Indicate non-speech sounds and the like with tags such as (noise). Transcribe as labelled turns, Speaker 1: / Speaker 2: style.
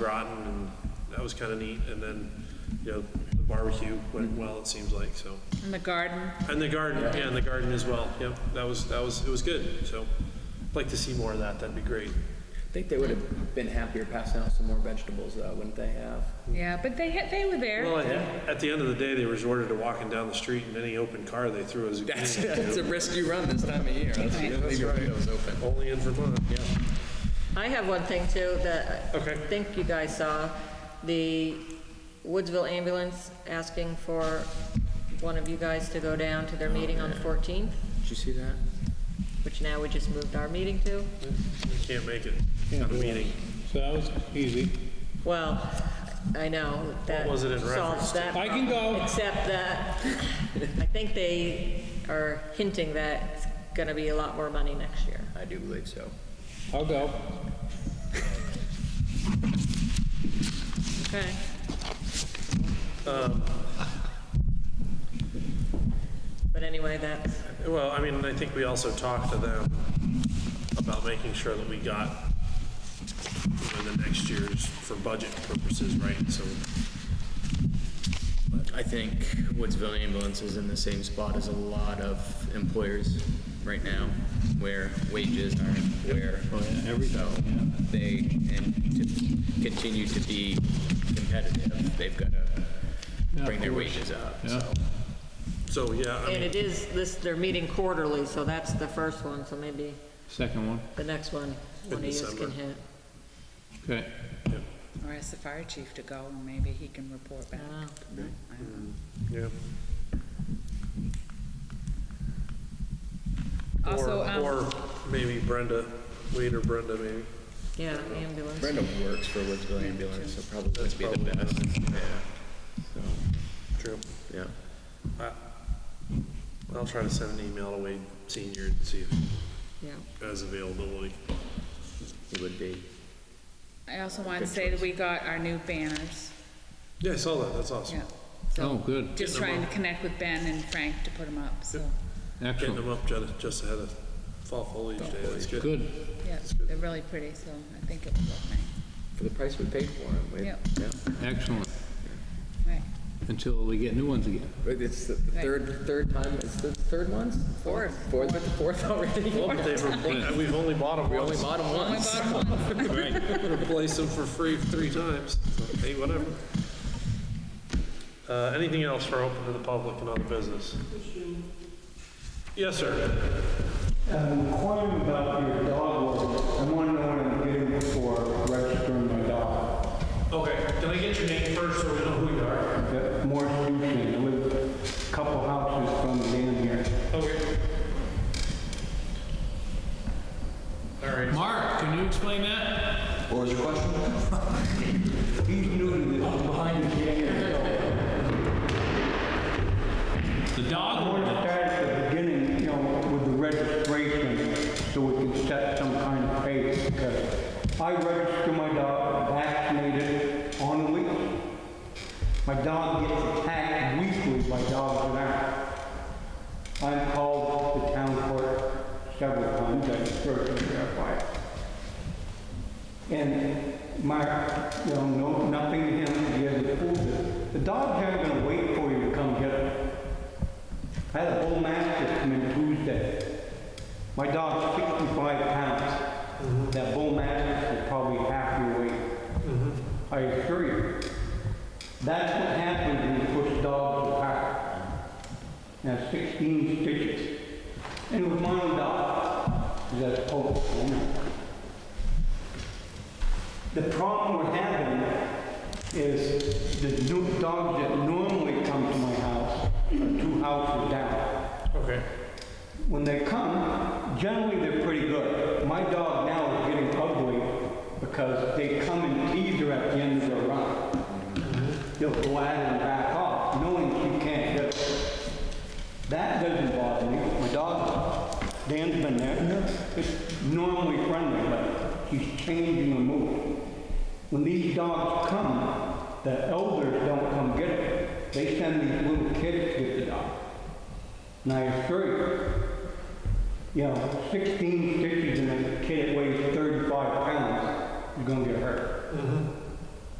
Speaker 1: Groton, and that was kind of neat. And then, you know, the barbecue went well, it seems like, so.
Speaker 2: In the garden,
Speaker 1: And the garden, yeah, and the garden as well, yep, that was, that was, it was good, so. I'd Like to see more of that, that'd be great.
Speaker 3: I think they would have been happier passing out some more vegetables, though, wouldn't they have?
Speaker 2: yeah, but they, had- they were
Speaker 1: Well,
Speaker 2: there.
Speaker 1: at at the end of the day, they resorted to walking down the street and any open car they threw was a
Speaker 3: That's, that's a rescue run this time of year. That's,
Speaker 2: Right.
Speaker 3: leave your windows open.
Speaker 1: (laughs) Only in Vermont, yeah.
Speaker 4: I have one thing too that I
Speaker 1: Okay.
Speaker 4: think you guys saw. The Woodsville ambulance asking for one of you guys to go down to
Speaker 1: Oh,
Speaker 4: their meeting on the 14th,
Speaker 3: Did you see that?
Speaker 4: which now we just moved our meeting to.
Speaker 1: You Can't make it on a meeting.
Speaker 5: So that was easy.
Speaker 4: Well, I know that
Speaker 1: was it in reference
Speaker 4: solves that.
Speaker 5: I can
Speaker 4: problem,
Speaker 5: go.
Speaker 4: Except that I think they are hinting that it's going to be a lot more money next year.
Speaker 3: I do believe so.
Speaker 5: I'll go.
Speaker 4: Okay.
Speaker 1: Um,
Speaker 4: But anyway, that's.
Speaker 1: Well, I mean, I think we also talked to them about making sure that we got, you know, the next year's for budget purposes, right? So,
Speaker 3: I think Woodsville Ambulance is in the same spot as a lot of employers right now, where wages aren't where. So they, and to continue to be competitive, they've got to bring their wages up, so.
Speaker 1: so, yeah, I
Speaker 4: And
Speaker 1: mean,
Speaker 4: it is, this, they're meeting quarterly, so that's the first one, so maybe
Speaker 5: Second one.
Speaker 4: the next one, one of yous
Speaker 1: December.
Speaker 4: can hit.
Speaker 5: Okay.
Speaker 2: Or ask the fire chief to go, and maybe he can report back.
Speaker 4: I
Speaker 2: No, I don't
Speaker 1: yeah.
Speaker 2: know. Also,
Speaker 1: Or,
Speaker 2: um,
Speaker 1: or maybe Brenda, Wade or Brenda, maybe.
Speaker 4: Yeah, ambulance.
Speaker 3: Brenda works for Woodsville Ambulance, so probably would be the best. Yeah,
Speaker 1: True.
Speaker 3: so, yeah.
Speaker 1: I'll try to send an email to Wade Senior and see if he
Speaker 4: Yeah.
Speaker 1: has availability.
Speaker 3: It would be.
Speaker 2: I also want to say that we got our new banners,
Speaker 1: Yeah, I saw that, that's awesome.
Speaker 2: yeah.
Speaker 5: Oh,
Speaker 2: So,
Speaker 5: good.
Speaker 2: just trying to connect with Ben and Frank to put them up, so,
Speaker 1: Getting
Speaker 5: Excellent.
Speaker 1: them up ju- just ahead of fall foliage day, that's good.
Speaker 5: Good.
Speaker 2: yeah, they're really pretty, so I think it will look nice.
Speaker 3: For the price we paid for them. we-
Speaker 2: Yep.
Speaker 3: yeah.
Speaker 5: Excellent.
Speaker 2: Right,
Speaker 5: Until we get new ones again.
Speaker 3: But It's the the
Speaker 2: Right.
Speaker 3: third, third time, it's the third ones?
Speaker 2: Fourth.
Speaker 3: Fourth, fourth already?
Speaker 1: Well, but they've repla- We've only bought them
Speaker 3: We only
Speaker 1: once.
Speaker 3: bought them
Speaker 2: Only
Speaker 3: once.
Speaker 2: bought them once.
Speaker 1: Replace them for free three times. Hey, whatever. Uh, Anything else for open to the public and other business? Yes, sir.
Speaker 6: I'm Um, inquiring about your dog ordinance. I want to know what I'm getting for registering my dog.
Speaker 1: Okay, can I get your name first so we know who you are?
Speaker 6: I've got more Houston, I live a couple houses from the end here.
Speaker 1: Okay. All right.
Speaker 5: Mark, can you explain that?
Speaker 6: What was your question? (laughs) He's new to this, I'm behind the (laughs) camera, so.
Speaker 5: The
Speaker 6: I
Speaker 5: dog
Speaker 6: want to start at the beginning, you know, with the registration, so we can set some kind of pace, because I register my dog vaccinated on the week. My dog gets attacked weekly by dogs and that. I've called the town clerk several times, I've heard him verify it. And my, you know, no, nothing to him, he hasn't approved it. The dog's aren't gonna wait for you to come get it. I had a bull mastiff come in Tuesday. My dog's 65 pounds. That bull mastiff is probably half your weight. I assure you. That's what happens when you push dogs apart. Now 16 stitches. And it was my own dog. That's hope. The problem we're having is the new dogs that normally come to my house are two houses down.
Speaker 1: Okay.
Speaker 6: When they come, generally they're pretty good. My dog now is getting ugly because they come and tease her at the end of the run. They'll go at her and back off, knowing she can't hit her. That doesn't bother me, my dog, Dan's been there, it's normally friendly, but she's changing her mood. When these dogs come, the elders don't come get it, they send these little kids to get the dog. And I assure you, you know, 16 stitches in a kid that weighs 35 pounds is going to get hurt.